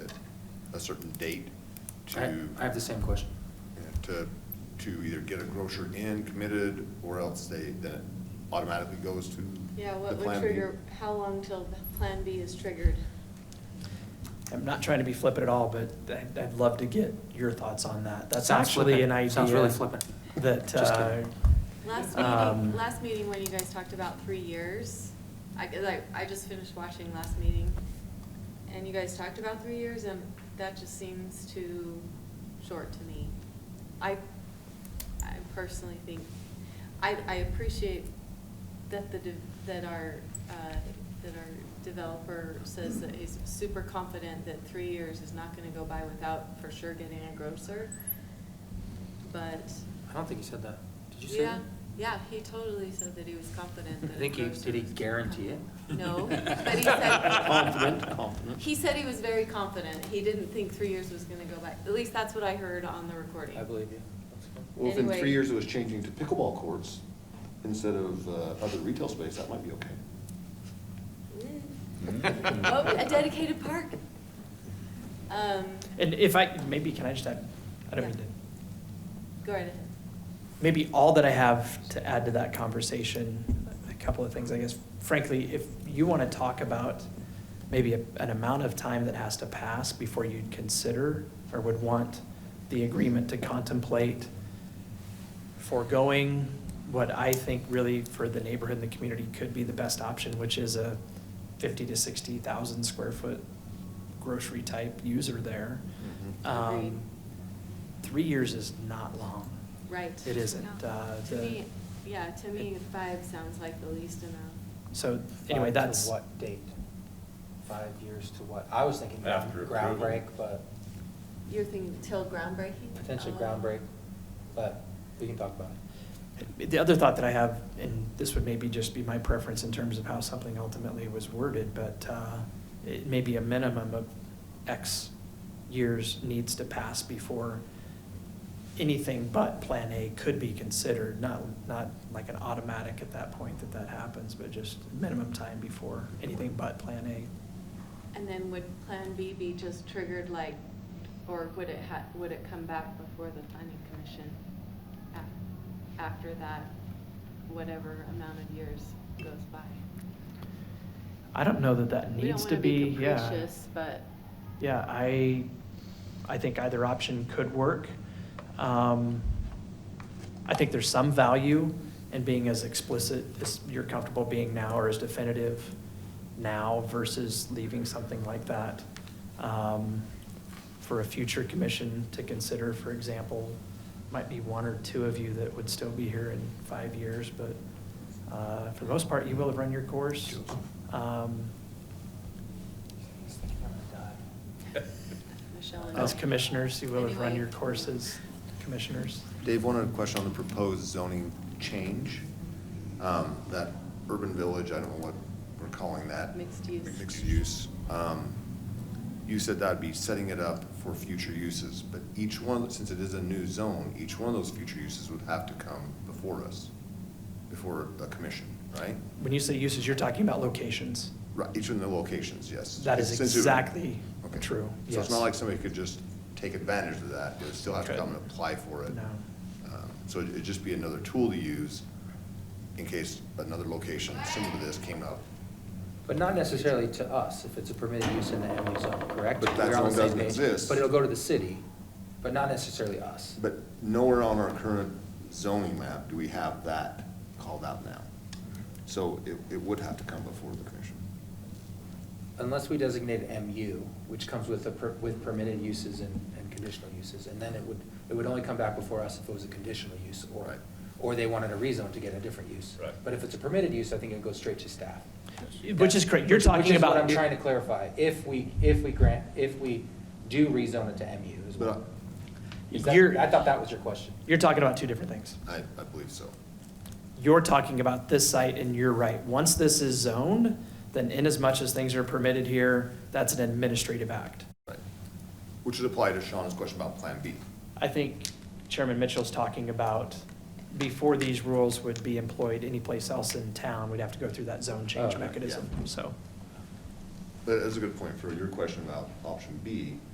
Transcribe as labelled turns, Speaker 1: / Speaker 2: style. Speaker 1: certain date
Speaker 2: I
Speaker 1: to,
Speaker 2: I have the same question.
Speaker 1: to, to either get a grocer in committed, or else they, then it automatically goes to
Speaker 3: Yeah,
Speaker 1: the
Speaker 3: what would
Speaker 1: Plan B.
Speaker 3: trigger, how long till the Plan B is triggered?
Speaker 4: I'm not trying to be flippant at all, but I'd, I'd love to get your thoughts on that. That's
Speaker 2: Sounds
Speaker 4: actually an idea.
Speaker 2: flippant. Sounds really flippant.
Speaker 4: That,
Speaker 2: Just
Speaker 4: uh,
Speaker 2: kidding.
Speaker 3: Last
Speaker 4: Um,
Speaker 3: meeting, last meeting when you guys talked about three years, I, 'cause I, I just finished watching last meeting, and you guys talked about three years, and that just seems too short to me. I, I personally think, I, I appreciate that the, de- that our, uh, that our developer says that he's super confident that three years is not gonna go by without for sure getting a grocer, but
Speaker 2: I don't think he said that. Did you say
Speaker 3: yeah,
Speaker 2: that?
Speaker 3: yeah, he totally said that he was confident
Speaker 2: I
Speaker 3: that.
Speaker 2: think he,
Speaker 3: Grocer
Speaker 2: did he
Speaker 3: was-
Speaker 2: guarantee it? Oh.
Speaker 3: No, but he said-
Speaker 2: Confident, confident.
Speaker 3: He said he was very confident. He didn't think three years was gonna go by. At least that's what I heard on the recording.
Speaker 2: I believe you.
Speaker 1: Well, if in
Speaker 3: Anyway.
Speaker 1: three years it was changing to pickleball courts instead of uh, other retail space, that might be okay.
Speaker 3: Mm. Oh, a dedicated park. Um,
Speaker 4: and if I, maybe can I just add, I don't mean
Speaker 3: Yeah.
Speaker 4: to
Speaker 3: go right ahead.
Speaker 4: maybe all that I have to add to that conversation, a couple of things, I guess. Frankly, if you want to talk about maybe a- an amount of time that has to pass before you'd consider or would want the agreement to contemplate foregoing what I think really for the neighborhood and the community could be the best option, which is a fifty to sixty thousand square foot grocery type user there. Um,
Speaker 3: Agreed.
Speaker 4: Three years is not long.
Speaker 3: Right.
Speaker 4: It isn't,
Speaker 3: No.
Speaker 4: uh,
Speaker 3: To
Speaker 4: the-
Speaker 3: me, yeah, to me, five sounds like the least amount.
Speaker 4: So
Speaker 5: Five
Speaker 4: anyway,
Speaker 5: to
Speaker 4: that's,
Speaker 5: what date? Five years to what? I was thinking
Speaker 6: After
Speaker 5: ground
Speaker 6: approval.
Speaker 5: break, but
Speaker 3: You're thinking till groundbreaking?
Speaker 5: potentially
Speaker 3: Oh.
Speaker 5: ground break, but we can talk about it.
Speaker 4: the other thought that I have, and this would maybe just be my preference in terms of how something ultimately was worded, but uh, it may be a minimum of X years needs to pass before anything but Plan A could be considered, not, not like an automatic at that point that that happens, but just minimum time before anything but Plan A.
Speaker 3: And then would Plan B be just triggered like, or would it ha, would it come back before the planning commission? af- After that, whatever amount of years goes by?
Speaker 4: I don't know that that
Speaker 3: We don't
Speaker 4: needs
Speaker 3: wanna
Speaker 4: to be, yeah.
Speaker 3: capricious, But,
Speaker 4: Yeah, I, I think either option could work. Um, I think there's some value in being as explicit as you're comfortable being now or as definitive now versus leaving something like that um, for a future commission to consider, for example, might be one or two of you that would still be here in five years, but uh, for the most part, you will have run your course. Um,
Speaker 5: He's thinking I'm gonna die.
Speaker 3: Michelle and.
Speaker 4: As commissioners, you will have run
Speaker 3: Anyway.
Speaker 4: your courses, commissioners.
Speaker 1: Dave, one other question on the proposed zoning change. Um, That urban village, I don't know what we're calling that.
Speaker 3: Mixed use.
Speaker 1: Mixed use. Um, You said that'd be setting it up for future uses, but each one, since it is a new zone, each one of those future uses would have to come before us, before the commission, right?
Speaker 4: When you say uses, you're talking about locations.
Speaker 1: Right, each one of the locations, yes.
Speaker 4: That is
Speaker 1: Since it-
Speaker 4: exactly
Speaker 1: Okay.
Speaker 4: true,
Speaker 1: So it's
Speaker 4: yes.
Speaker 1: not like somebody could just take advantage of that, they would still have to
Speaker 4: Could.
Speaker 1: come and apply for it.
Speaker 4: No.
Speaker 1: Um, So it'd it'd just be another tool to use in case another location similar to this came up.
Speaker 5: But not necessarily to us, if it's a permitted use in the MU zone, correct?
Speaker 1: But that
Speaker 5: We're on the
Speaker 1: zone doesn't
Speaker 5: same page.
Speaker 1: exist.
Speaker 5: But it'll go to the city, but not necessarily us.
Speaker 1: But nowhere on our current zoning map do we have that called out now. So it, it would have to come before the commission.
Speaker 5: Unless we designate MU, which comes with, the per- with permitted uses and, and conditional uses. And then it would, it would only come back before us if it was a conditional use or,
Speaker 1: Right.
Speaker 5: or they wanted a rezone to get a different use.
Speaker 6: Right.
Speaker 5: But if it's a permitted use, I think it goes straight to staff.
Speaker 4: Which is correct, you're
Speaker 5: Which- which
Speaker 4: talking
Speaker 5: is
Speaker 4: about.
Speaker 5: What I'm trying to clarify, if we, if we grant, if we do rezone it to MU as well.
Speaker 1: But
Speaker 5: Is that-
Speaker 4: You're-
Speaker 5: I thought that was your question.
Speaker 4: You're talking about two different things.
Speaker 1: I, I believe so.
Speaker 4: You're talking about this site and you're right. Once this is zoned, then inasmuch as things are permitted here, that's an administrative act.
Speaker 1: Right. Which would apply to Sean's question about Plan B.
Speaker 4: I think Chairman Mitchell's talking about before these rules would be employed anyplace else in town, we'd have to go through that zone change
Speaker 5: Oh, right, yeah.
Speaker 4: mechanism, so.
Speaker 1: But that's a good point for your question about option B.